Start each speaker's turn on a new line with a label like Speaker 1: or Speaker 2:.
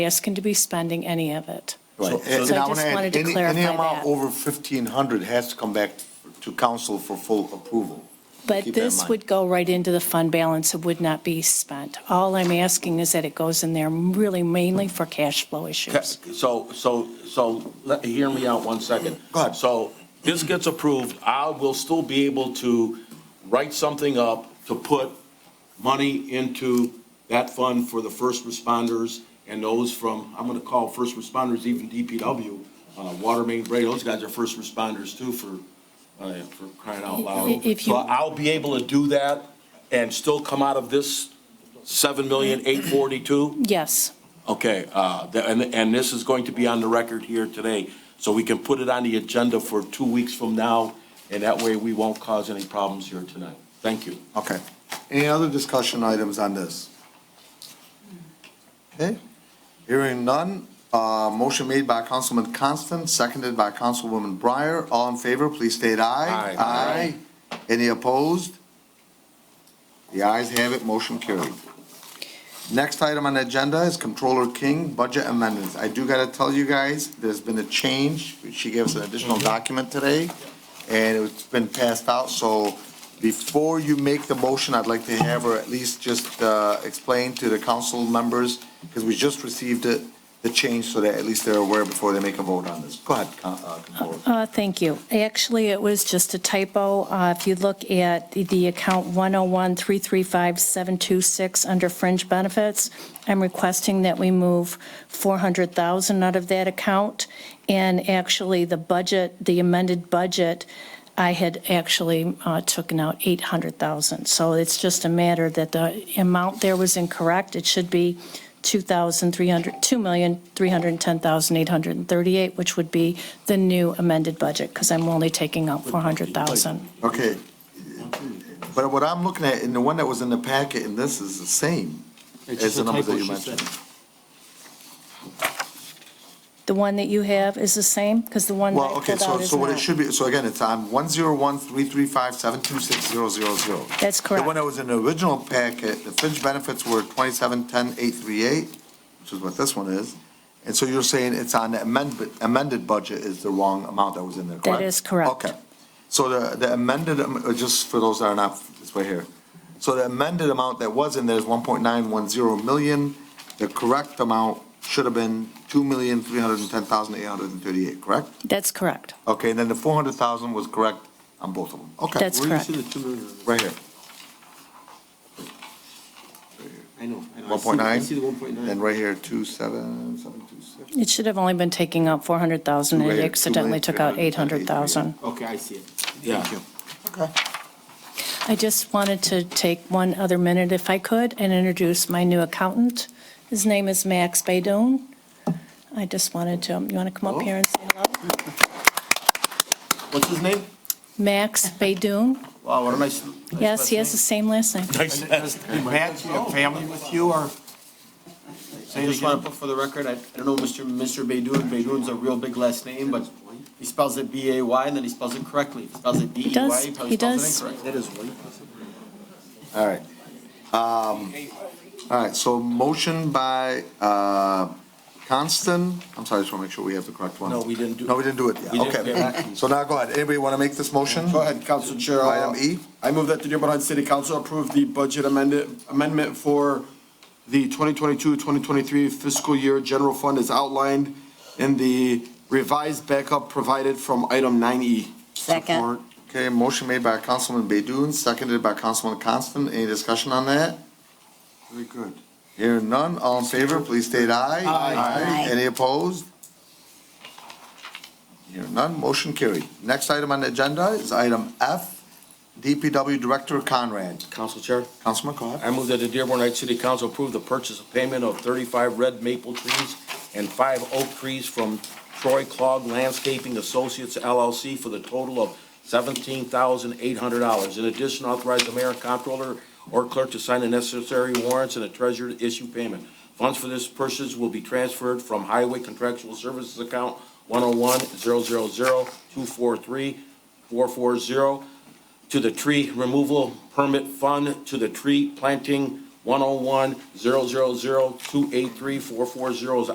Speaker 1: asking to be spending any of it.
Speaker 2: Right,
Speaker 3: So-
Speaker 2: and
Speaker 1: so
Speaker 2: and
Speaker 1: I
Speaker 2: I want
Speaker 1: just
Speaker 2: to
Speaker 1: wanted
Speaker 2: add,
Speaker 1: to
Speaker 2: any, any
Speaker 1: clarify
Speaker 2: amount
Speaker 1: that.
Speaker 2: over 1,500 has to come back to council for full approval.
Speaker 1: But
Speaker 2: Keep that in
Speaker 1: this
Speaker 2: mind.
Speaker 1: would go right into the fund balance, it would not be spent. All I'm asking is that it goes in there really mainly for cash flow
Speaker 3: Ca-
Speaker 1: issues.
Speaker 3: So, so, so, let, hear me out one second.
Speaker 2: Go ahead.
Speaker 3: So, this gets approved, I will still be able to write something up to put money into that fund for the first responders and those from, I'm gonna call first responders even DPW, uh, water main break, those guys are first responders too for, uh, for crying out loud.
Speaker 1: If you-
Speaker 3: So I'll be able to do that and still come out of this seven million, eight forty-two?
Speaker 1: Yes,
Speaker 3: Okay, uh, th- and, and this is going to be on the record here today, so we can put it on the agenda for two weeks from now, and that way we won't cause any problems here tonight. Thank you.
Speaker 2: Okay. Any other discussion items on this? Okay, hearing none. Uh, motion made by Councilman Constant, seconded by Councilwoman Breyer. All in favor, please state aye.
Speaker 3: Aye.
Speaker 2: Aye. Any opposed? The ayes have it, motion carried. Next item on the agenda is Controller King, budget amendments. I do gotta tell you guys, there's been a change. She gave us an additional document today, and it's been passed out, so before you make the motion, I'd like to have her at least just uh, explain to the council members, because we just received it, the change, so that at least they're aware before they make a vote on this. Go ahead, Con- uh, Controller.
Speaker 1: Uh, thank you. Actually, it was just a typo. Uh, If you look at the- the account 101335726 under fringe benefits, I'm requesting that we move 400,000 out of that account. And actually, the budget, the amended budget, I had actually uh, taken out 800,000. So it's just a matter that the amount there was incorrect. It should be 2,300, 2,310,838, which would be the new amended budget, because I'm only taking out 400,000.
Speaker 2: Okay, but what I'm looking at, and the one that was in the packet, and this is the same as the numbers that you mentioned.
Speaker 1: The one that you have is the same, because the one that I
Speaker 2: Well,
Speaker 1: pulled
Speaker 2: okay, so,
Speaker 1: out is
Speaker 2: so what it
Speaker 1: not.
Speaker 2: should be, so again, it's on one zero one three three five seven two six zero zero zero.
Speaker 1: That's
Speaker 2: The one
Speaker 1: correct.
Speaker 2: that was in the original packet, the fringe benefits were twenty-seven ten eight three eight, which is what this one is. And so you're saying it's on the amendment, amended budget is the wrong amount that was in there, correct?
Speaker 1: That is correct.
Speaker 2: Okay. So the, the amended, am- uh, just for those that are not, it's right here. So the amended amount that was in there is one point nine one zero million. The correct amount should have been two million three hundred and ten thousand eight hundred and thirty-eight, correct?
Speaker 1: That's correct.
Speaker 2: Okay, and then the four hundred thousand was correct on both of them. Okay.
Speaker 1: That's
Speaker 2: Where
Speaker 1: correct.
Speaker 2: do you see the two million?
Speaker 4: Mm-hmm.
Speaker 2: Right here,
Speaker 4: I know, I know. I see-
Speaker 2: one point nine.
Speaker 4: I see the one point
Speaker 2: And
Speaker 4: nine.
Speaker 2: right here, two seven, seven two six.
Speaker 1: It should have only been taking out 400,000, and
Speaker 2: Two
Speaker 1: it
Speaker 2: eight-
Speaker 1: accidentally
Speaker 2: two eight-
Speaker 1: took out
Speaker 2: eight hundred,
Speaker 1: 800,000.
Speaker 4: Okay, I see it.
Speaker 3: Yeah.
Speaker 2: Okay.
Speaker 1: I just wanted to take one other minute, if I could, and introduce my new accountant. His name is Max Baydun. I just wanted to, you want to come up here and say hello?
Speaker 3: What's his name?
Speaker 1: Max Baydun.
Speaker 3: Wow, what a nice.
Speaker 1: Yes, he has the same last name.
Speaker 4: Matt, you have family with you or? I just want to put for the record, I I don't know Mr. Mr. Baydun, Baydun's a real big last name, but he spells it B-A-Y and then he spells it correctly. If He spells it
Speaker 1: does,
Speaker 4: D-E-Y, he probably
Speaker 1: he
Speaker 4: spells
Speaker 1: does.
Speaker 4: it incorrect. That is white.
Speaker 2: All right. Um, All right, so motion by uh, Constant, I'm sorry, I just want to make sure we have the correct one.
Speaker 3: No, we didn't do-
Speaker 2: No, we didn't do it yet,
Speaker 3: We didn't do
Speaker 2: okay. So now go ahead, anybody want to make this motion?
Speaker 5: Go ahead, Council Chair.
Speaker 2: Item E.
Speaker 5: I move that the Dearborn Heights City Council approve the budget amended, amendment for the 2022-2023 fiscal year general fund as outlined in the revised backup provided from item E. 9E.
Speaker 6: Second.
Speaker 2: Okay, motion made by Councilman Baydun, seconded by Councilman Constant, any discussion on that?
Speaker 5: Very good.
Speaker 2: Hearing none, all in favor, please state aye.
Speaker 6: Aye.
Speaker 2: Any opposed? Hearing none, motion carried. Next item on the agenda is item F, DPW Director Conrad.
Speaker 3: Council Chair,
Speaker 2: Councilman, go ahead.
Speaker 3: I move that the Dearborn Heights City Council approve the purchase of payment of thirty-five red maple trees and five oak trees from Troy Clog Landscaping Associates LLC for the total of seventeen thousand eight hundred dollars. In addition, authorize the mayor and comptroller or clerk to sign the necessary warrants and the treasurer to issue payment. Funds for this purchase will be transferred from Highway Contractual Services Account one oh one zero zero zero two four three four four zero to the tree removal permit fund, to the oh tree planting 101 0 is